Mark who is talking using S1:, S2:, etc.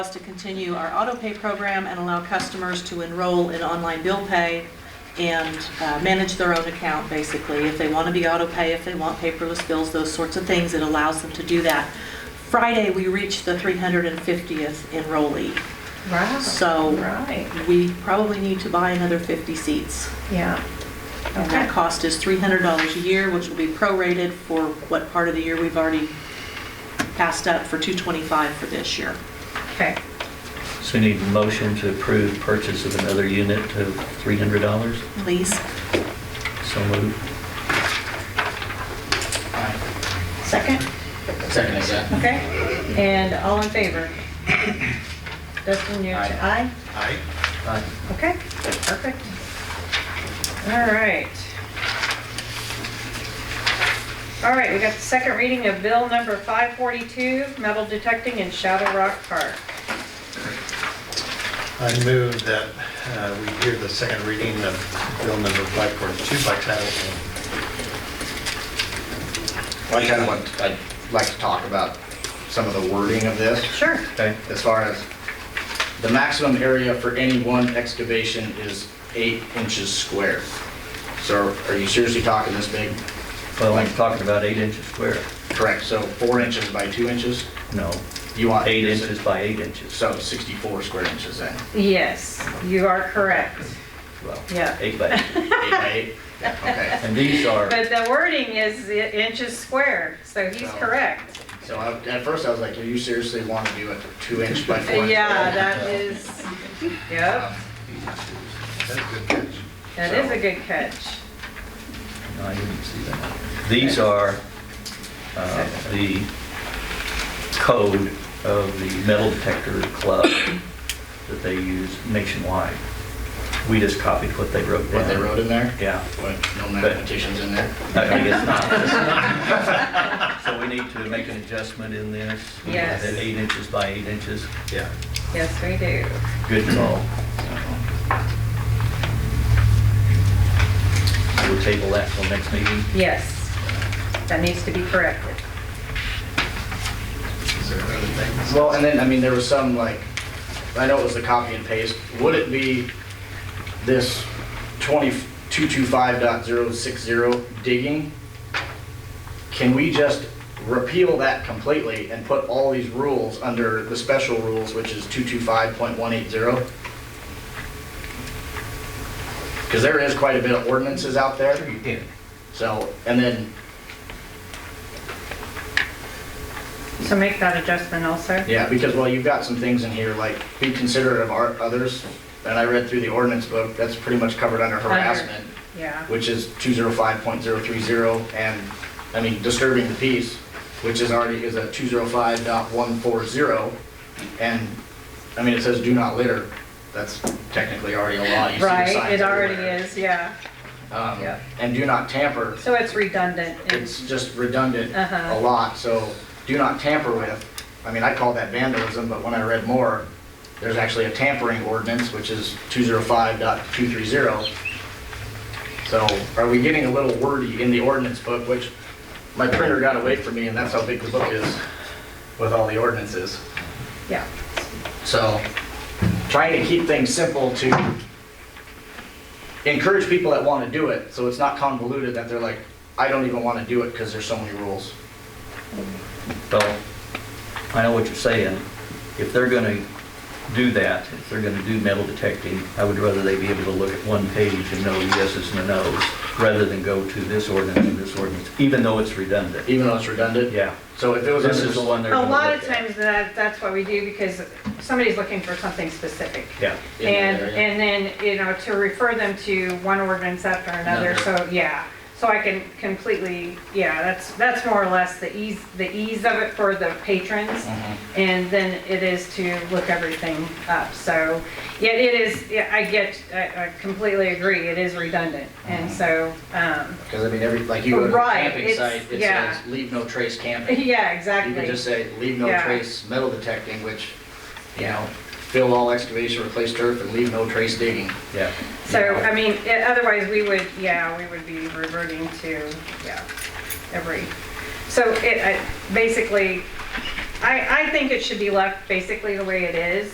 S1: us to continue our auto pay program and allow customers to enroll in online bill pay and uh, manage their own account, basically. If they want to be auto pay, if they want paperless bills, those sorts of things, it allows them to do that. Friday, we reached the 350th enrollee,
S2: Right,
S1: so
S2: right,
S1: we probably need to buy another 50 seats.
S2: yeah.
S1: And that cost is $300 a year, which will be prorated for what part of the year we've already passed up for 225 for this year.
S2: Okay,
S3: So we need a motion to approve purchase of another unit of $300?
S1: Please.
S3: So moved.
S2: second,
S4: Second is that.
S2: okay, and all in favor? Dustin, you're, aye?
S4: Aye.
S3: Aye.
S2: Okay, perfect. All right. All right, we got the second reading of bill number 542, metal detecting in Shadow Rock Park.
S5: I move that uh, we hear the second reading of Bill number 542 by title only.
S6: I kind of want, I'd like to talk about some of the wording of this,
S2: Sure.
S3: Okay.
S6: as far as
S4: The maximum area for any one excavation is eight inches square. So are you seriously talking this big?
S3: Well, I'm talking about eight inches square.
S4: Correct, so four inches by two inches?
S3: No,
S4: You want
S3: eight inches by eight inches.
S4: So 64 square inches then?
S2: Yes, you are correct.
S3: Well,
S2: Yeah.
S3: Eight by eight.
S4: Eight by eight? Okay,
S3: And these are,
S2: But the wording is i- inches squared, so he's
S4: Oh.
S2: correct.
S4: so I- at first I was like, do you seriously want to do a two inch by four? inch? Um,
S2: Yeah, that is, yep,
S5: That's a good catch.
S2: that is a good catch.
S3: no, I didn't see that. These are uh, the code of the metal detector club that they use nationwide. We just copied what they wrote down.
S4: What they wrote in there?
S3: Yeah.
S4: What, no mathematicians in there?
S3: I guess not. So we need to make an adjustment in this.
S2: Yes.
S3: At eight inches by eight inches,
S5: Yeah.
S2: Yes, we do.
S3: good call. We'll table that till next meeting.
S2: Yes, that needs to be corrected.
S5: Is there other things?
S4: Well, and then, I mean, there was some like, I know it was the copy and paste, would it be this 2225.060 digging? Can we just repeal that completely and put all these rules under the special rules, which is 225.180? Because there is quite a bit of ordinances out there. Sure you can. So, and then,
S2: So make that adjustment also?
S4: Yeah, because, well, you've got some things in here, like be considerate of our- others, and I read through the ordinance book, that's pretty much covered under harassment,
S2: Yeah,
S4: which is 205.030, and, I mean, disturbing the peace, which is already, is a 205.140, and, I mean, it says do not litter, that's technically already a law, you see the
S2: right,
S4: signs
S2: it already
S4: everywhere.
S2: is, yeah.
S4: Um,
S2: Yeah.
S4: And do not tamper,
S2: So it's redundant.
S4: it's just redundant
S2: Uh-huh.
S4: a lot, so do not tamper with. I mean, I call that vandalism, but when I read more, there's actually a tampering ordinance, which is 205.230. So are we getting a little wordy in the ordinance book, which my printer got away from me, and that's how big the book is with all the ordinances.
S2: Yeah,
S4: So, trying to keep things simple to encourage people that want to do it, so it's not convoluted that they're like, I don't even want to do it because there's so many rules.
S3: Well, I know what you're saying. If they're going to do that, if they're going to do metal detecting, I would rather they be able to look at one page and know yeses and nos, rather than go to this ordinance and this ordinance, even though it's redundant.
S4: Even though it's redundant?
S3: Yeah.
S4: So if it was.
S3: This is the one they're
S2: a
S3: going to
S2: lot of times that, that's what we do because somebody's looking for something specific.
S3: Yeah.
S4: In that
S2: And,
S4: area.
S2: and then, you know, to refer them to one ordinance after another, so, yeah. So I can completely, yeah, that's, that's more or less the ease, the ease of it for the patrons.
S4: mm-hmm,
S2: And then it is to look everything up, so, yeah, it is, yeah, I get, I I completely agree, it is redundant.
S4: Uh-huh.
S2: And so, um,
S4: Because I mean, every, like you go to a
S2: Right,
S4: camping
S2: it's-
S4: site, it
S2: yeah.
S4: says, leave no trace camping.
S2: yeah,
S4: You could just
S2: exactly.
S4: say, leave no
S2: Yeah.
S4: trace metal detecting, which, you know, fill all excavation, replace turf, and leave no trace digging.
S3: Yeah.
S2: So, I mean, i- otherwise, we would, yeah, we would be reverting to, yeah, every, so it, I- basically, I, I think it should be left basically the way it is.